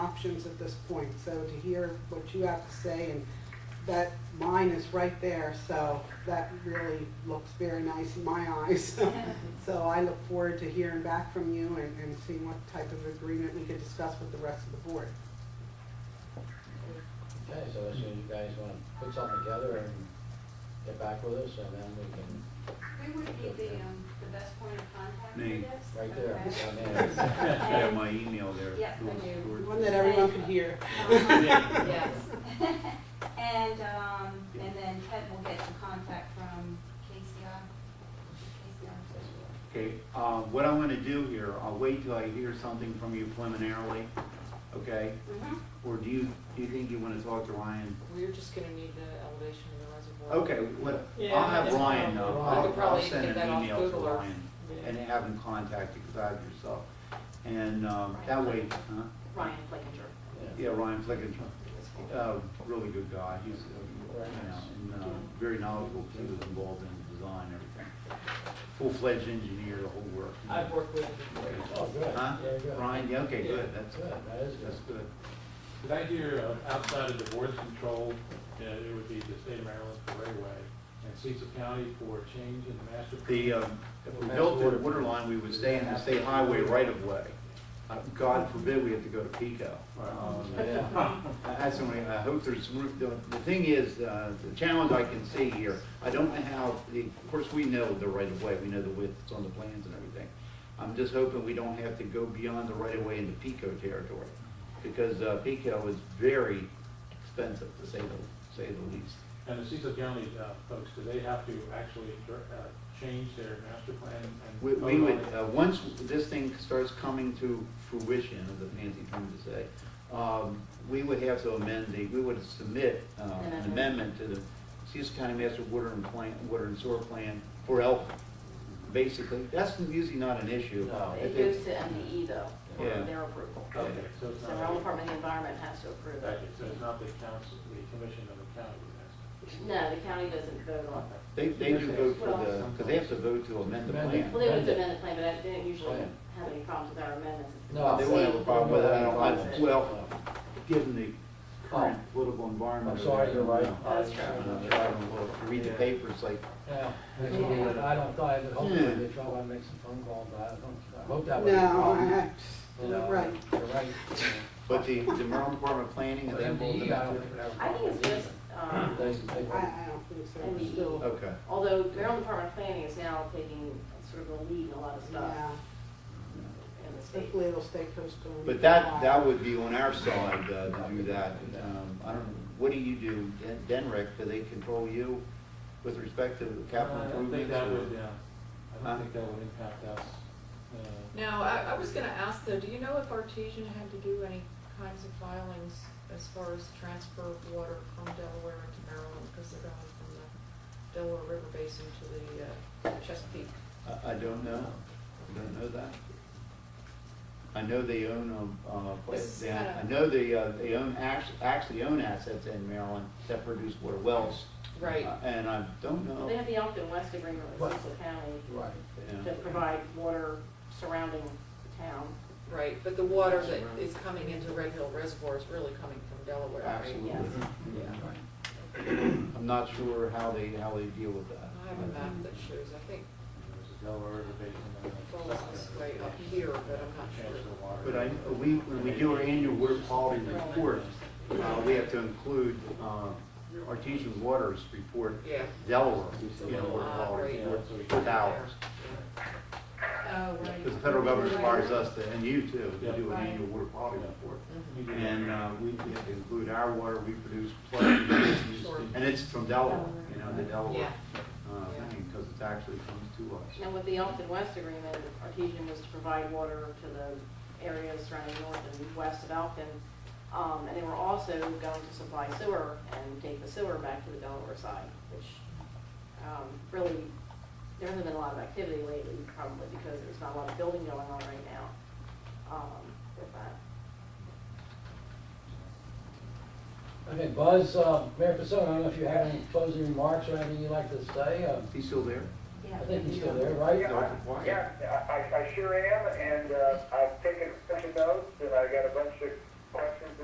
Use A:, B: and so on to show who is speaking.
A: options at this point, so to hear what you have to say, and that line is right there, so that really looks very nice in my eyes. So I look forward to hearing back from you and, and seeing what type of agreement we could discuss with the rest of the board.
B: Okay, so as soon as you guys want to put something together and get back with us, and then we can,
C: We would be the, um, the best point of contact for
D: Me.
C: this.
B: right there,
C: okay?
B: I
D: You have my email there.
C: Yeah, I
D: Louis
C: do.
D: Stewart.
A: One that everyone could hear.
C: Um,
E: Yes.
C: And, um, and then Ted will get the contact from KCR. KCR.
D: Okay, uh, what I'm gonna do here, I'll wait till I hear something from you preliminarily, okay?
C: Mhm.
D: Or do you, do you think you wanna talk to Ryan?
E: We're just gonna need the elevation of the reservoir.
D: Okay, what, I'll
E: Yeah,
D: have
E: that's
D: Ryan
E: fine.
D: know,
B: I
D: I'll,
B: could
D: I'll
E: probably
D: send
E: get that
D: an
E: off
D: email to
E: Google Earth.
D: Ryan
E: Yeah.
D: and have him contact you, cause I have yourself. And, um, that way, huh?
F: Ryan Flakinger.
B: mean,
D: Yeah, Ryan Flickinger, uh, really good guy, he's, uh,
B: Very
D: you
B: nice.
D: know, and, uh, very knowledgeable, he was involved in design, and everything. Full-fledged engineer, the whole work.
E: I've worked with him
B: oh,
E: before.
B: good,
D: Huh?
B: yeah, good.
D: Ryan, yeah, okay,
B: Yeah,
D: good, that's,
B: Good, that is good.
D: that's good.
G: Did I hear uh, outside of divorce control, uh, it would be the state of Maryland for Railway and Cecil County for a change in the master.
D: The, um, if we built the water line, we would stay in the state highway right-of-way. Uh, God forbid we have to go to PICO. Um,
B: Yeah.
D: I- That's the only, I hope uh, there's some, room- the, the thing is, uh, the challenge I can see here, I don't know how, the, of course, we know the right of way, we know the width, it's on the plans and everything. I'm just hoping we don't have to go beyond the right of way into PICO territory, because, uh, PICO is very expensive, to say the, say the least.
G: And the Cecil County uh, folks, do they have to actually uh, change their master plan and?
D: We, we
G: vote
D: would,
G: on it?
D: uh, once this thing starts coming to fruition, as Nancy trying to say, um, we would have to amend the, we would submit, uh, an
E: Amendment.
D: amendment to the Cecil County Master Water and Plan, Water and Sewer Plan for Elk, basically. That's usually not an issue.
B: No.
D: If
F: It
D: it's-
F: goes to MDE though, for
D: Yeah.
F: their approval.
G: Okay, so it's
F: So
G: not,
F: Maryland Department of the Environment has to approve
G: okay,
F: it.
G: so it's not the council, the commission of the county.
F: No, the county doesn't vote on it.
D: They, they do vote for the, because they have to vote to amend the
B: Amendment.
D: plan.
F: Well, they would amend the plan, but I didn't usually
D: Right.
F: have any problems with our amendments. It's
B: No,
D: They
F: the
D: won't have a
F: same.
D: problem with it, I don't, I,
F: Right.
D: well, given the current political
B: Oh. I'm
D: environment.
B: sorry, you're right.
D: No.
F: That's
D: I
F: true.
D: don't know, I don't know. Read the papers, like,
B: Yeah, that's good. I don't, I hopefully they try to make some phone calls, but I don't, I hope that wasn't a
A: No,
B: problem.
A: I-
B: You
A: I,
B: know,
A: right.
B: You're right.
D: But the, the Maryland Department of Planning,
B: But
D: are they involved in
B: MDE, I
D: that?
B: don't think would have a
F: I think
B: problem
F: it's just, um,
B: They, they
A: I,
B: won't.
A: I don't think so, We're still,
D: Okay.
F: although Maryland Department of Planning is now taking sort of a lead in a lot of
A: yeah,
F: stuff in the state.
A: hopefully it'll stay coastal. and-
D: But that, that would be on our side uh, to do that. Um, I don't, what do you do, Den- Denrick, do they control you with respect to capital
G: Uh, I don't think
D: improvements?
G: that
D: or-
G: would, uh,
D: Huh?
G: I don't think that would impact us. uh,
E: Now, I, I was gonna ask though, do you know if Artesian had to do any kinds of filings as far as transfer of water from Delaware into Maryland? Because they're going from the Delaware River Basin to the uh, Chesapeake.
D: I, I don't know, I don't know that. I know they own, um, uh,
E: This is
D: they-
E: kinda-
D: I know they, uh, they own, act- actually own assets in Maryland that produce water wells. Uh, And I don't know.
F: They have the Elkton West Agreement with
B: Right.
F: Cecil County
B: Right.
D: yeah.
F: to provide water surrounding the town.
E: Right, but the water that is coming into Red Hill Reservoir is really coming from Delaware, right?
D: Absolutely.
F: Yes.
D: Yeah. I'm not sure how they, how they deal with that.
E: I have a map that shows, I think
G: There's a Delaware River Basin. and
E: it falls this way up
G: a-
E: here, but I'm not
G: Transfer
E: sure.
G: water.
D: But I, we, when we do our annual water quality report, uh, we have to include, uh, Artesian Waters report,
E: Yeah.
D: Delaware, you know, water quality
E: Right.
D: report with ours.
E: Oh, right.
D: Because the federal government requires us to, and you too, to do an annual water quality report.
E: Mm-hmm.
G: You do that.
D: And, uh, we we have to include our water we produce, plus we use, and it's from Delaware, you know, the Delaware, uh, thing, because it actually comes to us.
F: And with the Elkton West Agreement, Artesian was to provide water to the areas surrounding north and west of Elkton. Um, and they were also going to supply sewer and take the sewer back to the Delaware side, which, um, really, there hasn't been a lot of activity lately, probably because there's not a lot of building going on right now, um, with that.
B: Okay, Buzz, uh, Mayor Pasone, I don't know if you have any closing remarks or anything you'd like to say. Uh,
D: He's still there?
C: Yeah.
B: I think he's still there, right?
H: Yeah, I- yeah, I, I sure am, and, uh, I've taken a bunch of notes, and I got a bunch of